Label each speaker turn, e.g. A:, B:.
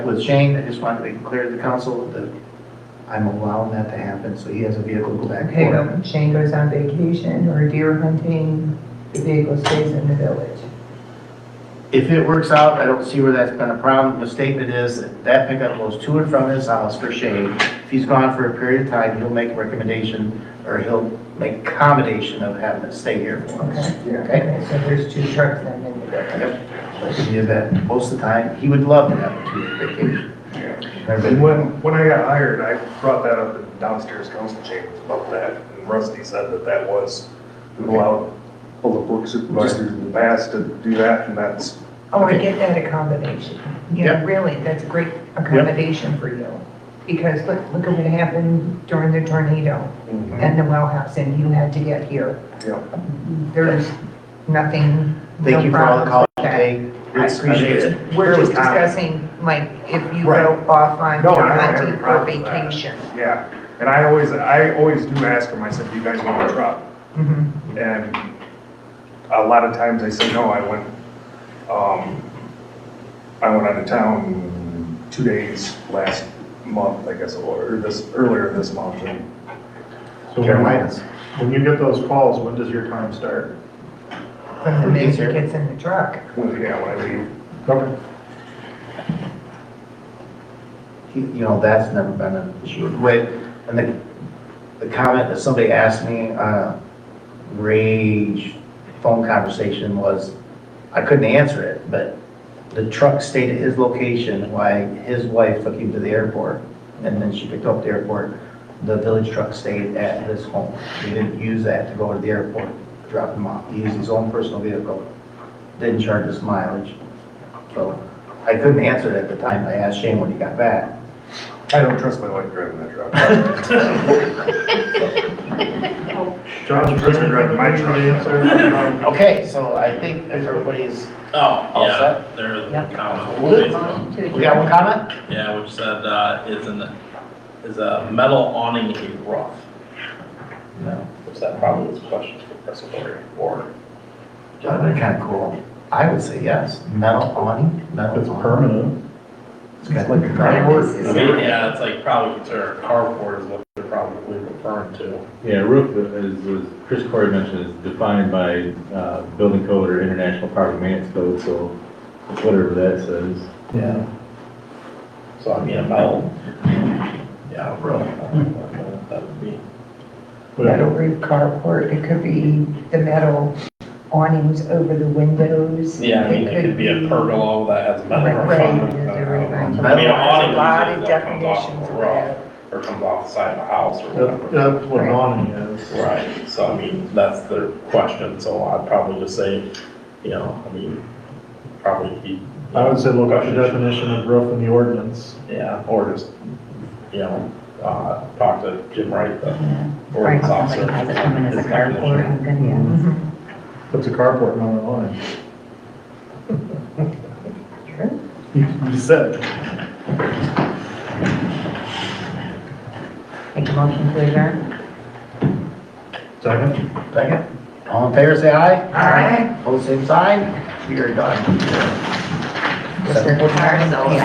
A: with Shane, I just wanted to make it clear to the council that I'm allowing that to happen, so he has a vehicle go back
B: Okay,
A: for him.
B: when Shane goes on vacation or deer hunting, the vehicle stays in the village.
A: If it works out, I don't see where that's been a problem. The statement is that that pickup goes to and from his house for Shane. If he's gone for a period of time, he'll make a recommendation, or he'll make accommodation of having it stay here for us.
B: Okay,
A: Okay?
B: okay, so there's two trucks then in the village.
A: That should be a bet. Most of the time, he would love to have a two-week vacation. Everybody-
C: And when, when I got hired, I brought that up in downstairs council chambers about that, and Rusty said that that was allowed public work supervisors in the past to do that, and that's,
B: Oh, I get that accommodation. Yeah, really, that's a great accommodation for you. Because look, look at what happened during the tornado and the well house and you had to get here.
C: Yeah.
B: There's nothing.
A: Thank
B: no
A: you for all the
B: problems
A: calls you
B: with that.
A: take. I appreciate it.
B: We're just
A: Really kind.
B: discussing, like, if you
C: Right.
B: go off on,
C: No, I don't have
B: hunting
C: any
B: for
C: problem with that.
B: vacation.
C: yeah. And I always, I always do ask them, I said, do you guys want a truck?
B: Mhm.
C: And a lot of times I say, no, I went, um, I went out of town two days last month, I guess, or this, earlier this month, and
D: So when,
A: Carolinas.
D: when you get those calls, when does your time start?
B: From the
A: Pretty
B: minute it
A: certain.
B: gets in the truck.
C: Well, yeah, when I leave.
D: Okay.
A: you you know, that's never been an issue. Wait, and the, the comment that somebody asked me, uh, rage phone conversation was, I couldn't answer it, but the truck stayed at his location while his wife took him to the airport, and then she picked up at the airport. The village truck stayed at his home. He didn't use that to go to the airport, drop him off. He used his own personal vehicle, didn't charge us mileage. So I couldn't answer it at the time. I asked Shane when he got back.
C: I don't trust my wife driving that truck.
D: John's prison
C: Right, my truck.
D: answer.
A: Okay, so I think if everybody's,
E: Oh,
A: All
E: yeah,
A: set?
E: there is
B: Yep.
E: a comment.
A: Good.
E: Facebook.
A: we got one comment?
E: Yeah, which said, uh, is an, is a metal awning a roof?
A: No.
E: Which that probably is a question for Professor Boyer, or,
A: John, they're kind of cool. I would say yes. Metal awning, metal.
D: It's
A: awning.
D: permanent.
A: It's got like a
B: Right,
A: groundwork.
B: this
E: I
B: is-
E: mean, yeah, it's like probably considered carport is what they're probably referring to.
F: Yeah, roof, as, as Chris Corey mentioned, is defined by, uh, building code or international property maintenance code, so whatever that says.
A: Yeah.
E: So I mean, a metal, yeah, a roof. I don't know what That would be,
B: metal roof carport, it could be the metal awnings over the windows.
E: yeah, I mean, it could be a pergola that has a metal
B: Right,
E: roof on it. uh, I don't know.
B: right.
A: Metal
E: I mean, an
B: There's a lot
E: awning
B: of
E: usually that comes off
B: definitions
E: the
B: of
E: roof,
B: that.
E: or comes off the side of the house or whatever.
D: That- That's what an awning is.
E: Right, so I mean, that's the question, so I'd probably just say, you know, I mean, probably be.
D: I would say look up the definition of roof in the ordinance.
E: Yeah, or just, you know, uh, talk to Jim Wright, the
G: Right,
E: ordinance
G: somebody
E: officer.
G: has it coming as a
E: His
G: carport,
E: definition.
G: and then, yeah.
E: Mm-hmm.
B: Mhm.
D: That's a carport, not an awning.
B: Sure.
D: You you said.
G: Make a motion to adjourn?
D: Second?
A: Second. All in favor, say aye.
B: Aye.
A: Hold the same sign. We are done.
G: Just a-
A: Seven forty-nine.
G: Yeah.